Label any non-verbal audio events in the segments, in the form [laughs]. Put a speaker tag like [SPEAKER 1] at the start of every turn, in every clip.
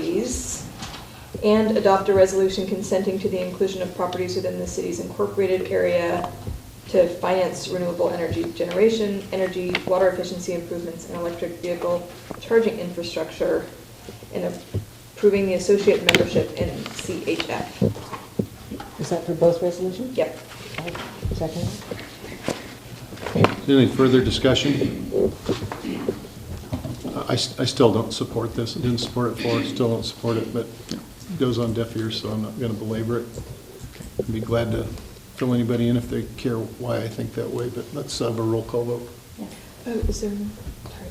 [SPEAKER 1] properties, and adopt a resolution consenting to the inclusion of properties within the city's incorporated area to finance renewable energy generation, energy, water efficiency improvements, and electric vehicle charging infrastructure, and approving the associate membership in CHF.
[SPEAKER 2] Is that for both resolutions?
[SPEAKER 1] Yep.
[SPEAKER 2] Okay, Second?
[SPEAKER 3] Any further discussion? I, I still don't support this, I didn't support it before, still don't support it, but it goes on deaf ears, so I'm not going to belabor it. I'd be glad to fill anybody in if they care why I think that way, but let's have a roll call vote.
[SPEAKER 1] Oh, is there, sorry,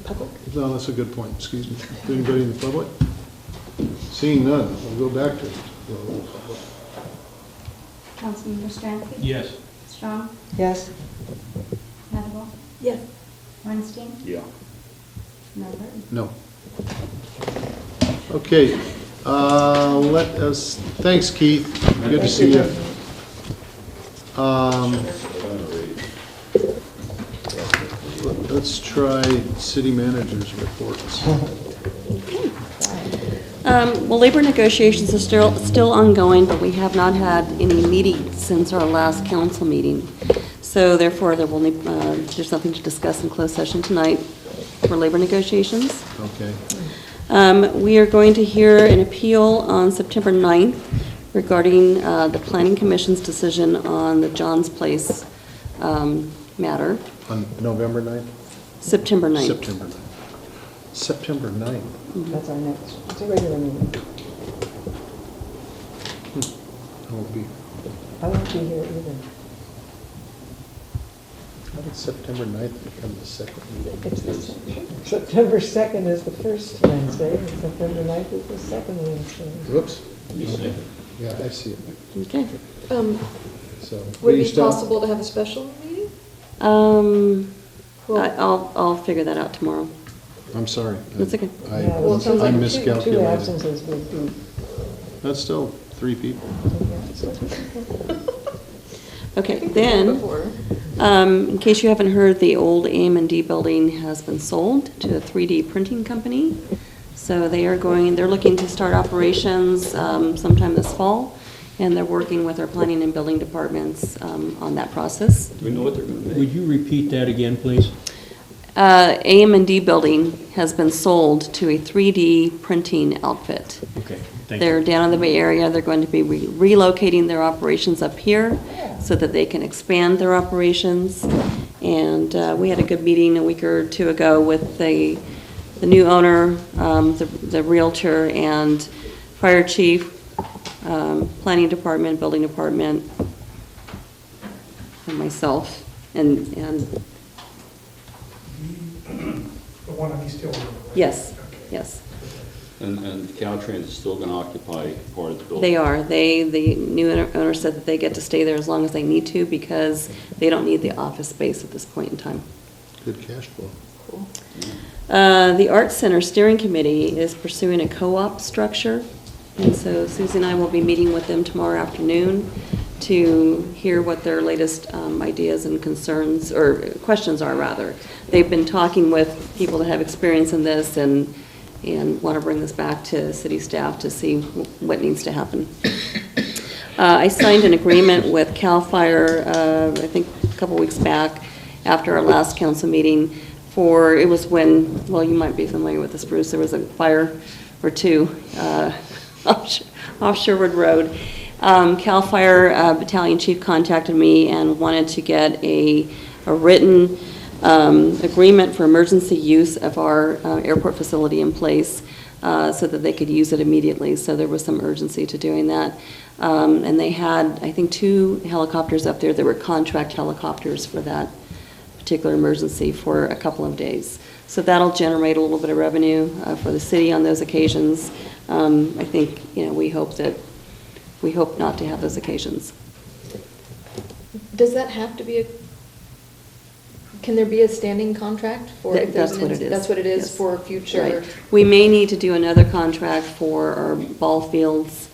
[SPEAKER 1] public?
[SPEAKER 3] No, that's a good point, excuse me. Is there Anybody in the public? Seeing none, we'll go back to it.
[SPEAKER 4] Councilmember Stransky?
[SPEAKER 5] Yes.
[SPEAKER 4] Strong?
[SPEAKER 2] Yes?
[SPEAKER 4] Madable?
[SPEAKER 1] Yeah.
[SPEAKER 4] Weinstein?
[SPEAKER 5] Yeah.
[SPEAKER 4] Melbert?
[SPEAKER 3] No. Okay, uh, let us, thanks Keith, good to see you. Um, Let's try city managers' reports.
[SPEAKER 6] Um, Well, labor negotiations are still, still ongoing, but we have not had any meetings since our last council meeting. So therefore, there will, need- uh, there's nothing to discuss in closed session tonight for labor negotiations.
[SPEAKER 3] Okay,
[SPEAKER 6] Um, We are going to hear an appeal on September 9th regarding uh, the Planning Commission's decision on the John's Place um, matter,
[SPEAKER 3] on November 9th?
[SPEAKER 6] September 9th.
[SPEAKER 3] September 9th. September 9th,
[SPEAKER 2] That's our next, it's a regular meeting.
[SPEAKER 3] I will be,
[SPEAKER 2] I won't be here either.
[SPEAKER 3] how did September 9th become the second meeting?
[SPEAKER 2] It's the- September 2nd is the first Wednesday, and September 9th is the second Wednesday.
[SPEAKER 3] Whoops. Yeah, I see it,
[SPEAKER 6] Okay.
[SPEAKER 1] Um,
[SPEAKER 3] so.
[SPEAKER 1] would
[SPEAKER 3] you
[SPEAKER 1] it be
[SPEAKER 3] still-
[SPEAKER 1] possible to have a special meeting?
[SPEAKER 6] Um,
[SPEAKER 1] Well-
[SPEAKER 6] I- I'll, I'll figure that out tomorrow.
[SPEAKER 3] I'm sorry.
[SPEAKER 6] That's okay.
[SPEAKER 3] I-
[SPEAKER 2] Yeah,
[SPEAKER 1] Well, it sounds
[SPEAKER 3] I
[SPEAKER 1] like two- two
[SPEAKER 2] Two
[SPEAKER 3] miscalculated.
[SPEAKER 2] absences would be,
[SPEAKER 3] That's still three people.
[SPEAKER 6] Okay,
[SPEAKER 1] I think we did
[SPEAKER 6] then,
[SPEAKER 1] before.
[SPEAKER 6] um, in case you haven't heard, the old AM and D building has been sold to a 3D printing company. So they are going, they're looking to start operations um, sometime this fall, and they're working with our planning and building departments um, on that process.
[SPEAKER 7] Do we know what they're going to
[SPEAKER 5] Would
[SPEAKER 7] make?
[SPEAKER 5] you repeat that again, please?
[SPEAKER 6] Uh, AM and D building has been sold to a 3D printing outfit.
[SPEAKER 5] Okay, thank
[SPEAKER 6] They're
[SPEAKER 5] you.
[SPEAKER 6] down in the Bay Area, they're going to be re- relocating their operations up here so that they can expand their operations. And uh, we had a good meeting a week or two ago with the, the new owner, um, the the Realtor, and Fire Chief, um, Planning Department, Building Department, and myself, and, and,
[SPEAKER 8] The one on East Hill Road.
[SPEAKER 6] yes, yes.
[SPEAKER 7] And, and Caltrans is still going to occupy part of the building?
[SPEAKER 6] They are. They, the new owner- owner said that they get to stay there as long as they need to because they don't need the office space at this point in time.
[SPEAKER 3] Good cash flow.
[SPEAKER 6] Uh, The Arts Center Steering Committee is pursuing a co-op structure, and so Susie and I will be meeting with them tomorrow afternoon to hear what their latest um, ideas and concerns, or questions are, rather. They've been talking with people that have experience in this and, and want to bring this back to city staff to see wh- what needs to happen. Uh, I signed an agreement with CAL FIRE, uh, I think a couple weeks back, after our last council meeting, for, it was when, well, you might be familiar with this, Bruce, there was a fire or two uh, [laughs] off off Sherwood Road. Um, CAL FIRE uh, Battalion Chief contacted me and wanted to get a a written um, agreement for emergency use of our uh, airport facility in place uh, so that they could use it immediately. So there was some urgency to doing that. Um, And they had, I think, two helicopters up there that were contract helicopters for that particular emergency for a couple of days. So that'll generate a little bit of revenue uh, for the city on those occasions. Um, I think, you know, we hope that, we hope not to have those occasions.
[SPEAKER 1] Does that have to be a, can there be a standing contract for?
[SPEAKER 6] That-
[SPEAKER 1] if there's an
[SPEAKER 6] that's what it
[SPEAKER 1] inc-
[SPEAKER 6] is.
[SPEAKER 1] That's what it is
[SPEAKER 6] Yes.
[SPEAKER 1] for future.
[SPEAKER 6] Right. We may need to do another contract for our ball fields.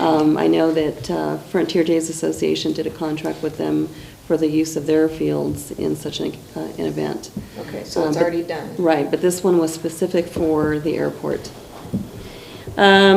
[SPEAKER 6] Um, I know that uh, Frontier Days Association did a contract with them for the use of their fields in such an, uh, an event.
[SPEAKER 1] Okay, so
[SPEAKER 6] Um,
[SPEAKER 1] it's
[SPEAKER 6] but-
[SPEAKER 1] already done.
[SPEAKER 6] Right, but this one was specific for the airport. Um, Um,